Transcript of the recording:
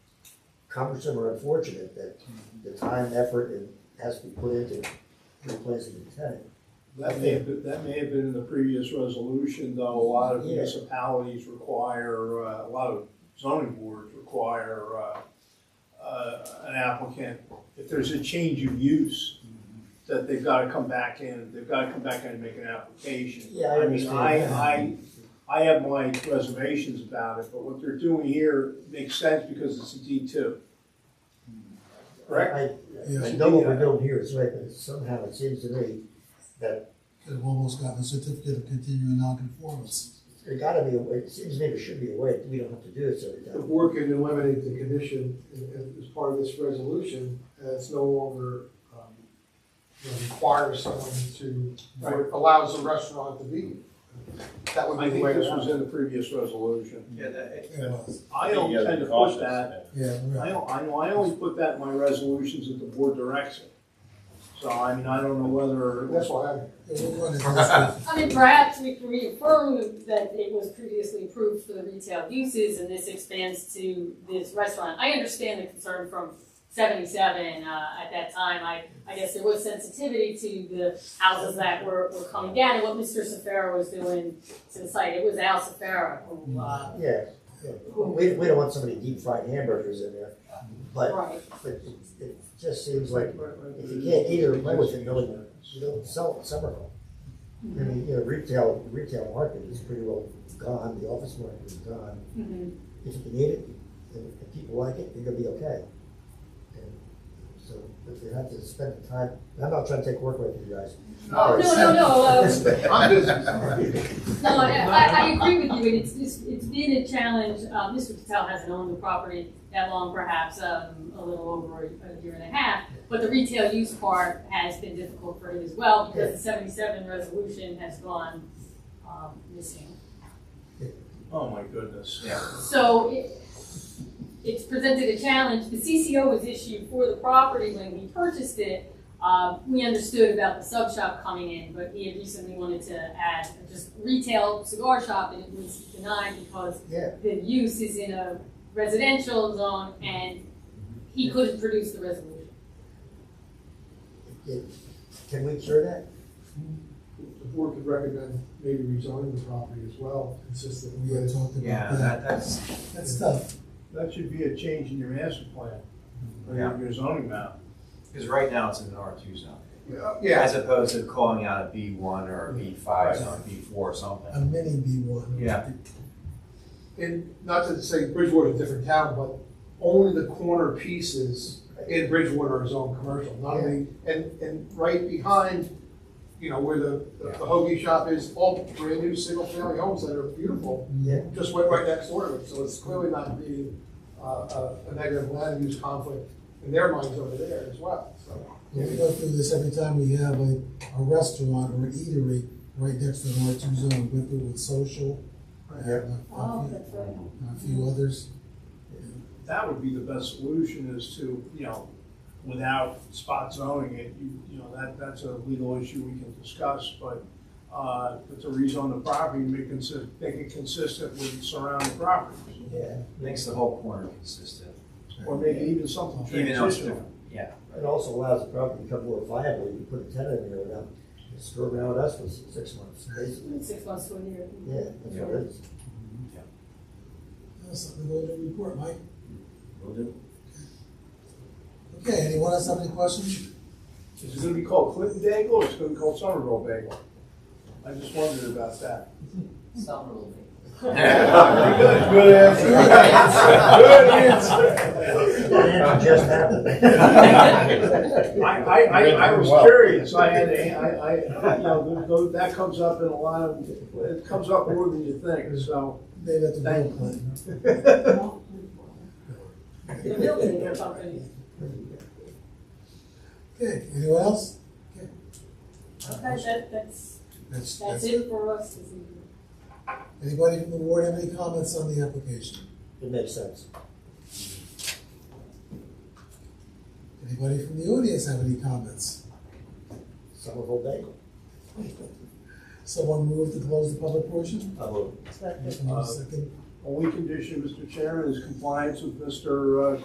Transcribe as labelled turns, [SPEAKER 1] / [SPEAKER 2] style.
[SPEAKER 1] cumbersome or unfortunate that the time, effort, and has to be put into replacing the tenant.
[SPEAKER 2] That may have, been- that may have been in the previous resolution, though, a lot of
[SPEAKER 1] Yeah.
[SPEAKER 2] municipalities require, uh, a lot of zoning boards require, uh, uh, an applicant, if there's a change of use,
[SPEAKER 1] Mm-hmm.
[SPEAKER 2] that they've gotta come back in, they've gotta come back in and make an application.
[SPEAKER 1] Yeah, I
[SPEAKER 2] mean,
[SPEAKER 1] understand that.
[SPEAKER 2] I, I, I have my reservations about it, but what they're doing here makes sense because it's a D two.
[SPEAKER 1] Hmm.
[SPEAKER 2] Correct?
[SPEAKER 1] I- I, I
[SPEAKER 3] Yes.
[SPEAKER 1] know what we're doing here is right, but somehow it seems to me that
[SPEAKER 3] They've almost gotten a certificate of continuing nonconformance.
[SPEAKER 1] there gotta be, a way. it seems to me there should be a way, that we don't have to do this every
[SPEAKER 4] The
[SPEAKER 1] time.
[SPEAKER 4] board can eliminate the condition as- as part of this resolution, and it's no longer um, you know, requires someone to, or allows the restaurant to be. That would
[SPEAKER 2] I
[SPEAKER 4] be the
[SPEAKER 2] think
[SPEAKER 4] way
[SPEAKER 2] this
[SPEAKER 4] to
[SPEAKER 2] was
[SPEAKER 4] was.
[SPEAKER 2] in the previous resolution.
[SPEAKER 5] Yeah, that,
[SPEAKER 3] It was.
[SPEAKER 2] I don't tend to push that
[SPEAKER 3] Yeah,
[SPEAKER 2] I,
[SPEAKER 3] right.
[SPEAKER 2] don't- I, know I only put that in my resolutions that the board directs it. So, I mean, I don't know whether,
[SPEAKER 4] That's why I,
[SPEAKER 3] It was one of those-
[SPEAKER 6] I mean, perhaps we can reaffirm that it was previously approved for the retail uses and this expands to this restaurant. I understand the concern from seventy-seven, uh, at that time, I, I guess there was sensitivity to the houses that were, were coming down and what Mr. Safara was doing to the site. It was Al Safara who, uh,
[SPEAKER 1] Yeah, yeah. we, we don't want so many deep fried hamburgers in there, but,
[SPEAKER 6] right.
[SPEAKER 1] but it, it just seems like if you can't eat it or play with it, really, you don't sell it somewhere. I mean, you know, retail, retail market is pretty well gone, the office market is gone.
[SPEAKER 6] Mhm.
[SPEAKER 1] if you can eat it, and if people like it, you're gonna be okay. And so, but you have to spend the time, and I'm not trying to take work away from you guys.
[SPEAKER 6] Oh, no, no, no, uh,
[SPEAKER 4] I'm busy.
[SPEAKER 6] No, I, I I agree with you, and it's, it's, it's been a challenge, uh, Mr. Patel hasn't owned the property that long, perhaps, um, a little over a a year and a half, but the retail use part has been difficult for him as well, because the seventy-seven resolution has gone, um, missing.
[SPEAKER 2] oh my goodness.
[SPEAKER 6] So it, it's presented a challenge. The CCO was issued for the property when we purchased it. Uh, we understood about the sub shop coming in, but he had recently wanted to add just retail cigar shop and it was denied because
[SPEAKER 1] Yeah,
[SPEAKER 6] the use is in a residential zone and he couldn't produce the resolution.
[SPEAKER 1] it- can we cure that?
[SPEAKER 4] The board could recommend maybe rezoning the property as well, consistent
[SPEAKER 3] We had
[SPEAKER 4] with.
[SPEAKER 3] talked
[SPEAKER 5] Yeah,
[SPEAKER 3] about that.
[SPEAKER 5] that, that's,
[SPEAKER 3] That's tough.
[SPEAKER 2] That should be a change in your master plan, or your-
[SPEAKER 5] Yeah.
[SPEAKER 2] your zoning map.
[SPEAKER 5] because right now it's in an R two zone.
[SPEAKER 4] Yeah,
[SPEAKER 5] As opposed to calling out a B one or a B five zone, B four or
[SPEAKER 3] A
[SPEAKER 5] something.
[SPEAKER 3] mini B one.
[SPEAKER 5] Yeah.
[SPEAKER 4] and not to say Bridgewater's a different town, but only the corner pieces in Bridgewater is own commercial, not only, and, and right behind, you know, where the, the the hoagie shop is, all brand new single family homes that are beautiful,
[SPEAKER 1] Yeah.
[SPEAKER 4] just went right next door to it, so it's clearly not being, uh, a a negative land use conflict in their minds over there as well, so.
[SPEAKER 3] Yeah, We go through this every time we have a, a restaurant or an eatery right next to the R two zone, went through with social. and a-
[SPEAKER 1] Oh,
[SPEAKER 6] Oh,
[SPEAKER 3] a few-
[SPEAKER 6] right.
[SPEAKER 3] and A few others.
[SPEAKER 2] That would be the best solution is to, you know, without spot zoning it, you, you know, that, that's a legal issue we can discuss, but, uh, but to rezone the property, and make consi- make it consistent with surrounding properties,
[SPEAKER 1] Yeah,
[SPEAKER 5] Makes the whole corner consistent,
[SPEAKER 2] or maybe even something
[SPEAKER 5] even though it's
[SPEAKER 2] transitional.
[SPEAKER 5] different, yeah.
[SPEAKER 1] it also allows the property to become more viable, you can put a tenant in there without, screw around with us for six months, basically.
[SPEAKER 6] Six months to a year.
[SPEAKER 1] Yeah, that's what it is.
[SPEAKER 3] That's something to go to report, Mike.
[SPEAKER 5] Will do.
[SPEAKER 3] Okay, anyone else have any questions?
[SPEAKER 2] Is it gonna be called Clinton Bagel or is it gonna be called Somerville Bagel? I just wondered about that. Good answer. Good
[SPEAKER 1] That answer just happened.
[SPEAKER 2] answer. I, I, I, I was curious, I had, a- I, I, you know, th- th- that comes up in a lot of, it comes up more than you think, so.
[SPEAKER 3] Maybe that's a
[SPEAKER 2] Thank
[SPEAKER 3] real plan.
[SPEAKER 6] The building they're talking.
[SPEAKER 3] Okay, anyone else?
[SPEAKER 6] Okay, that, that's,
[SPEAKER 3] That's,
[SPEAKER 6] that's
[SPEAKER 3] that's,
[SPEAKER 6] it for us this evening.
[SPEAKER 3] anybody from the board have any comments on the application?
[SPEAKER 1] It makes sense.
[SPEAKER 3] Anybody from the audience have any comments?
[SPEAKER 1] Somerville Bagel.
[SPEAKER 3] Someone move to close the public portion?
[SPEAKER 1] I will.
[SPEAKER 3] Someone Second.
[SPEAKER 2] Only condition, Mr. Chairman, is compliance with Mr. uh,